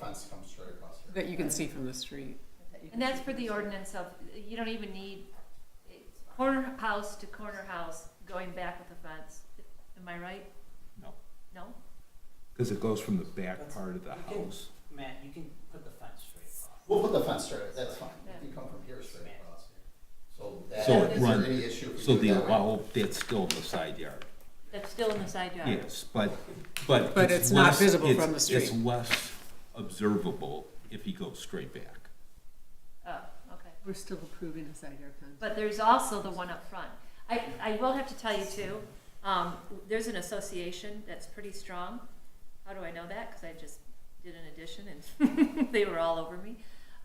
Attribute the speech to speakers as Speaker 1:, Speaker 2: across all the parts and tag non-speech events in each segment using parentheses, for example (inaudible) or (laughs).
Speaker 1: fence comes straight across here.
Speaker 2: that you can see from the street.
Speaker 3: And that's for the ordinance of, you don't even need it's corner house to corner house going back with the fence. Am I right?
Speaker 4: No.
Speaker 3: No?
Speaker 4: Because it goes from the back
Speaker 5: That's-
Speaker 4: part of the
Speaker 5: you can-
Speaker 4: house.
Speaker 5: Matt, you can put the fence straight across.
Speaker 1: We'll put the fence straight, that's fine,
Speaker 3: Yeah.
Speaker 1: you come from here straight
Speaker 5: Matt.
Speaker 1: across here. So that,
Speaker 4: So
Speaker 3: it
Speaker 1: is there
Speaker 4: runs-
Speaker 1: any issue if
Speaker 4: So
Speaker 1: we do
Speaker 4: the,
Speaker 1: it that way?
Speaker 4: well, that's still in the side yard,
Speaker 3: That's still in the side yard?
Speaker 4: yes, but, but.
Speaker 2: But it's not
Speaker 4: less-
Speaker 2: visible
Speaker 4: it's-
Speaker 2: from the
Speaker 4: It's
Speaker 2: street.
Speaker 4: less observable if he goes straight back.
Speaker 3: Oh, okay.
Speaker 2: We're still approving a side yard fence.
Speaker 3: But there's also the one up front. I, I will have to tell you too, um, there's an association that's pretty strong. How do I know that? Cause I just did an addition and (laughs) they were all over me.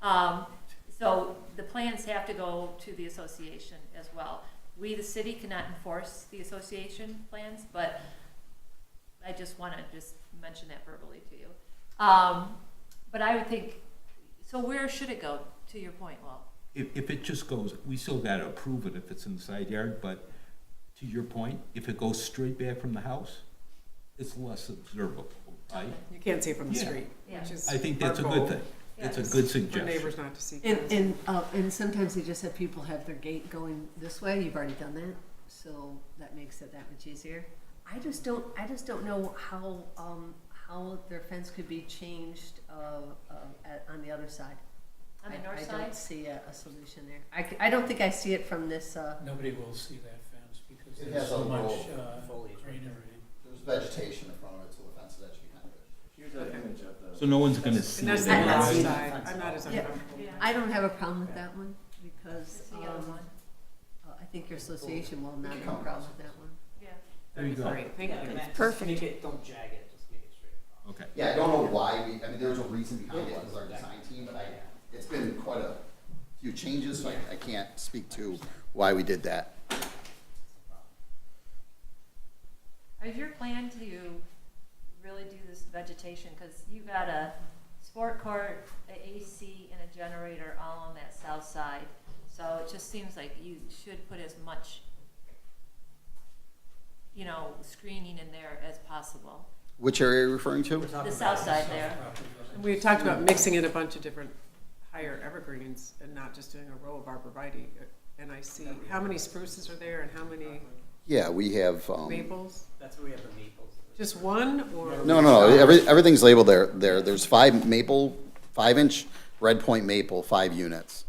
Speaker 3: Um, so the plans have to go to the association as well. We, the city, cannot enforce the association plans, but I just wanna just mention that verbally to you. Um, but I would think, so where should it go, to your point, Walt?
Speaker 4: If, if it just goes, we still gotta approve it if it's in the side yard, but to your point, if it goes straight back from the house, it's less observable, right?
Speaker 2: You can't see it from the
Speaker 4: Yeah.
Speaker 2: street,
Speaker 3: Yeah.
Speaker 2: which is.
Speaker 4: I think
Speaker 2: our
Speaker 4: that's a
Speaker 2: goal,
Speaker 4: good thing. That's a
Speaker 3: Yeah.
Speaker 4: good
Speaker 2: For
Speaker 4: suggestion.
Speaker 2: neighbors not to see.
Speaker 6: And, and, uh, and sometimes they just have people have their gate going this way, you've already done that, so that makes it that much easier. I just don't, I just don't know how, um, how their fence could be changed, uh, uh, at, on the other side.
Speaker 3: On the
Speaker 6: I-
Speaker 3: north
Speaker 6: I
Speaker 3: side?
Speaker 6: don't see a, a solution there. I, c- I don't think I see it from this, uh,
Speaker 7: Nobody will see that fence because
Speaker 1: It
Speaker 7: there's
Speaker 1: has
Speaker 7: so
Speaker 1: a
Speaker 7: much
Speaker 1: little
Speaker 7: uh,
Speaker 5: foliage.
Speaker 7: greenery.
Speaker 1: There's vegetation in front of it, so the fence is actually kind of good.
Speaker 8: Here's an image of the.
Speaker 4: So no one's gonna see
Speaker 2: And that's
Speaker 4: it.
Speaker 2: the
Speaker 6: I'm not
Speaker 2: north
Speaker 6: seeing
Speaker 2: side,
Speaker 8: fence
Speaker 2: I'm
Speaker 8: at
Speaker 2: not
Speaker 8: all.
Speaker 2: as
Speaker 6: Yeah.
Speaker 2: uncomfortable.
Speaker 3: Yeah.
Speaker 6: I don't have a problem with
Speaker 8: Yeah.
Speaker 6: that one, because,
Speaker 3: It's the yellow
Speaker 6: um,
Speaker 3: one.
Speaker 6: uh, I think your association will not have a problem with that one.
Speaker 3: Yeah.
Speaker 4: There you go.
Speaker 2: Great, thank
Speaker 5: Yeah,
Speaker 2: you.
Speaker 5: Matt, just
Speaker 2: Perfect.
Speaker 5: Make it, don't jag it, just make it straight across.
Speaker 4: Okay.
Speaker 1: Yeah, I don't know why we, I mean, there's a reason behind it, because our design team, but I, it's been quite a few changes, so I, I can't speak to why we did that.
Speaker 3: Is your plan to really do this vegetation, because you got a sport court, a AC, and a generator all on that south side, so it just seems like you should put as much, you know, screening in there as possible.
Speaker 1: Which area are you referring to?
Speaker 5: We're talking
Speaker 3: The
Speaker 5: about
Speaker 3: south side there,
Speaker 7: Property doesn't-
Speaker 2: And we talked about mixing in a bunch of different higher evergreens and not just doing a row of arborvitae. And I see, how many spruces are there and how many
Speaker 1: Yeah, we have, um,
Speaker 2: maples?
Speaker 5: That's where we have the maples.
Speaker 2: Just one or?
Speaker 1: no, no, every, everything's labeled there, there, there's five maple, five-inch red point maple, five units.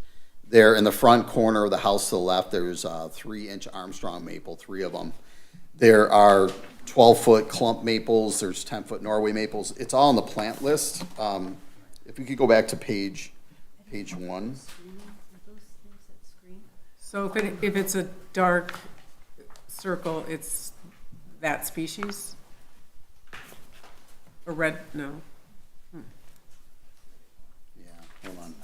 Speaker 1: There in the front corner of the house to the left, there's a three-inch Armstrong maple, three of them. There are twelve-foot clump maples, there's ten-foot Norway maples, it's all on the plant list. Um, if we could go back to page, page one.
Speaker 2: So if it, if it's a dark circle, it's that species? Or red, no,
Speaker 1: Yeah, hold on.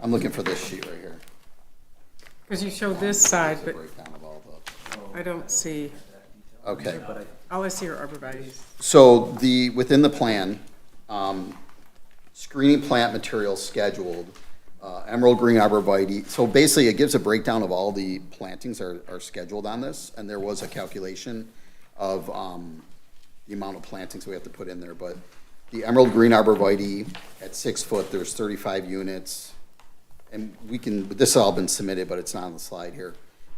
Speaker 1: I'm looking for this sheet right here.
Speaker 2: because you show this side,
Speaker 1: It's a
Speaker 2: but
Speaker 1: breakdown of all the-
Speaker 2: I don't see,
Speaker 1: Okay.
Speaker 2: all I see are arborvitae's.
Speaker 1: So the, within the plan, um, screening plant materials scheduled, uh, emerald green arborvitae. So basically, it gives a breakdown of all the plantings are, are scheduled on this, and there was a calculation of, um, the amount of plantings we have to put in there, but the emerald green arborvitae at six foot, there's thirty-five units. And we can, this has all been submitted, but it's not on the slide here.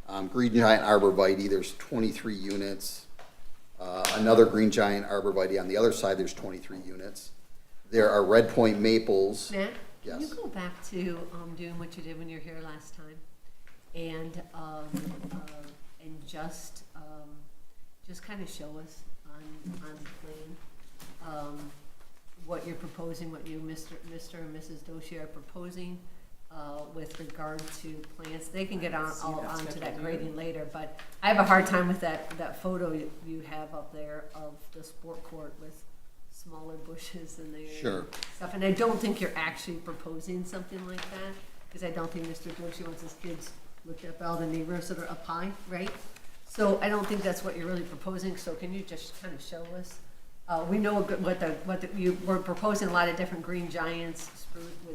Speaker 1: Um, green giant arborvitae, there's twenty-three units. Uh, another green giant arborvitae on the other side, there's twenty-three units. There are red point maples.
Speaker 6: Matt, can you
Speaker 1: Yes.
Speaker 6: go back to um, doing what you did when you were here last time? And, um, uh, and just, um, just kind of show us on, on the plan, um, what you're proposing, what you, Mr. Mr. and Mrs. Doshi are proposing, uh, with regard to plants. They can get on,
Speaker 2: See,
Speaker 6: all
Speaker 2: that's
Speaker 6: onto
Speaker 2: what I
Speaker 6: that
Speaker 2: do.
Speaker 6: grading later, but I have a hard time with that, that photo you you have up there of the sport court with smaller bushes in there
Speaker 1: Sure.
Speaker 6: stuff, and I don't think you're actually proposing something like that, because I don't think Mr. Doshi wants his kids looked up all the neighbors that are up high, right? So I don't think that's what you're really proposing, so can you just kind of show us? Uh, we know what the, what the, what the- you, we're proposing a lot of different green giants, spruce,